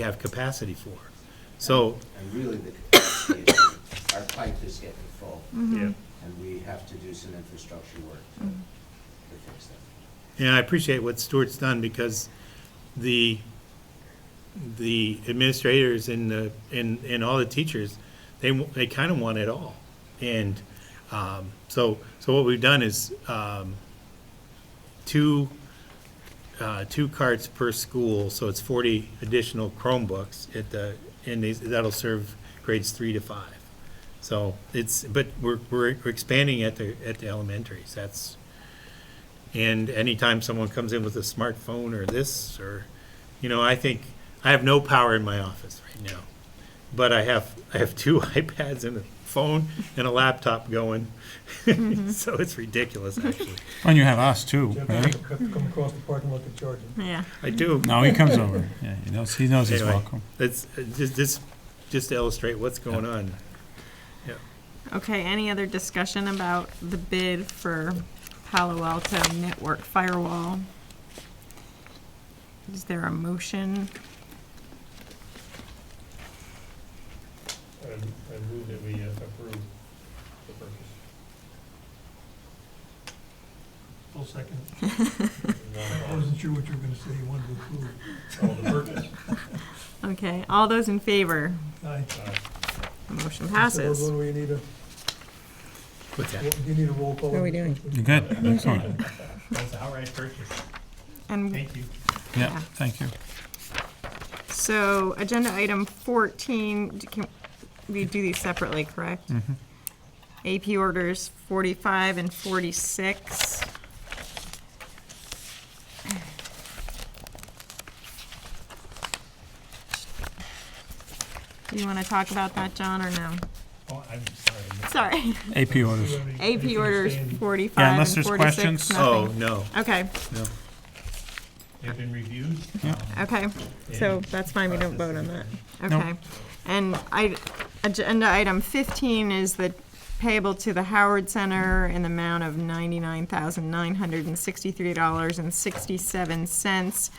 have capacity for. So, And really, the capacity issue, our pipe is getting full, yeah, and we have to do some infrastructure work to to fix that. and I appreciate what Stuart's done because the, the administrators and the, and, and all the teachers, they, w- they kind of want it all. And, um, so, so what we've done is, um, two, uh, two carts per school, so it's forty additional Chromebooks at the, and these, that'll serve grades three to five. So it's, but we're, we're we're expanding at the, at the elementaries, that's, and anytime someone comes in with a smartphone or this, or, you know, I think, I have no power in my office right now. But I have, I have two iPads and a phone and a laptop going, so it's ridiculous, actually. And you have us too, Jeff, you right? have to come across the parking lot to charge them. Yeah, I do. No, he comes over. Yeah, he knows, he knows he's Anyway. welcome. That's, uh, just, just, just to illustrate what's going on. okay, any other discussion about the bid for Palo Alto Network Firewall? Is there a motion? I I move that we uh, approve the purchase. Full second. I wasn't sure what you were gonna say, you wanted to approve. Uh, Oh, the purchase. Okay, all those in favor? Aye. The motion So passes. When we need a, What's that? you need a roll call. How are we doing? You're good, excellent. That's outright purchase, And thank you. Yeah, thank you. so, agenda item fourteen, d- can, we do these separately, correct? Mm-hmm. AP orders forty-five and forty-six. Do you wanna talk about that, John, or no? Oh, I'm sorry. Sorry. AP orders. AP orders Yeah, forty-five unless and there's forty-six, questions. Oh, nothing. no, Okay, no. They've been reviewed. okay, so that's fine, we don't vote on that, Nope. okay. And I, agenda item fifteen is the payable to the Howard Center in the amount of ninety-nine thousand nine hundred and sixty-three dollars and sixty-seven cents.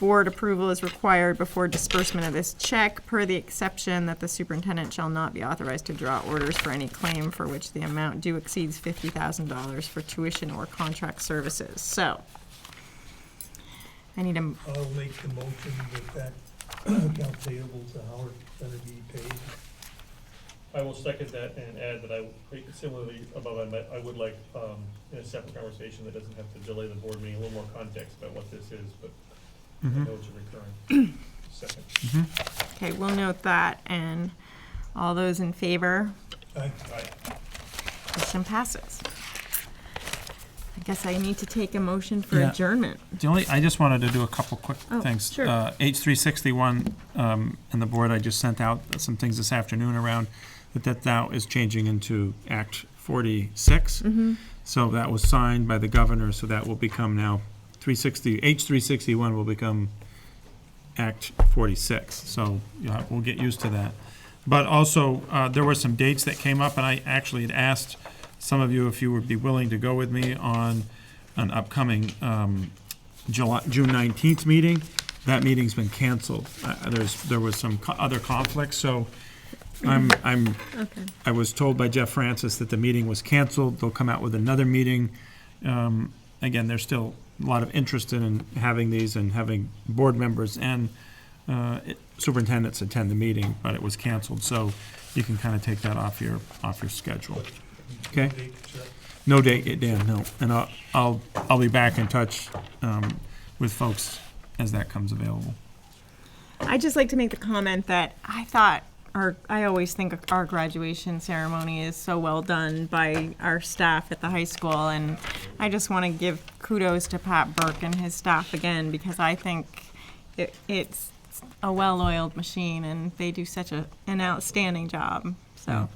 Board approval is required before disbursement of this check, per the exception that the superintendent shall not be authorized to draw orders for any claim for which the amount due exceeds fifty thousand dollars for tuition or contract services, so. I need a, m- I'll make the motion that that account payable to Howard Center be paid. I will second that and add that I, similarly above, I I would like, um, in a separate conversation that doesn't have to delay the board meeting, a little more context about what this is, but I Mm-hmm. know it's a recurring. Second. okay, we'll note that, and all those in favor, Aye. motion passes. I guess I need to take a motion for Yeah. adjournment. The only, I just wanted to do a couple quick Oh, things. sure. Uh, H three sixty-one, um, and the board, I just sent out some things this afternoon around that that now is changing into Act forty-six. Mm-hmm. So that was signed by the governor, so that will become now three sixty, H three sixty-one will become Act forty-six. So, yeah, we'll get used to that. But also, uh, there were some dates that came up, and I actually had asked some of you if you would be willing to go with me on an upcoming, um, July, June nineteenth meeting. That meeting's been canceled. Uh, there's, there was some co- other conflicts, so I'm, I'm, I was told by Jeff Francis that the meeting was canceled. They'll come out with another meeting. Um, again, there's still a lot of interest in having these and having board members and, uh, superintendents attend the meeting, but it was canceled, so you can kind of take that off your, off your schedule. Okay? No date yet, Dan, no. And I'll, I'll, I'll be back in touch, um, with folks as that comes available. I'd just like to make the comment that I thought, our I always think our graduation ceremony is so well done by our staff at the high school, and I just want to give kudos to Pat Burke and his staff again, because I think it, it's a well-oiled machine, and they do such a, an outstanding job, so,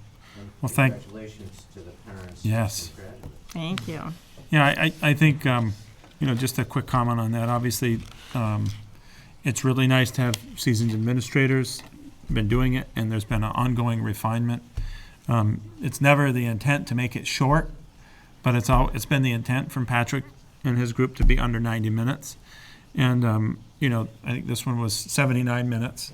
Well, thank- Congratulations to the parents. Yes. and graduates. thank you. Yeah, I, I I think, um, you know, just a quick comment on that. Obviously, um, it's really nice to have seasoned administrators, been doing it, and there's been an ongoing refinement. Um, It's never the intent to make it short, but it's all, it's been the intent from Patrick and his group to be under 90 minutes. And um, you know, I think this one was seventy-nine minutes.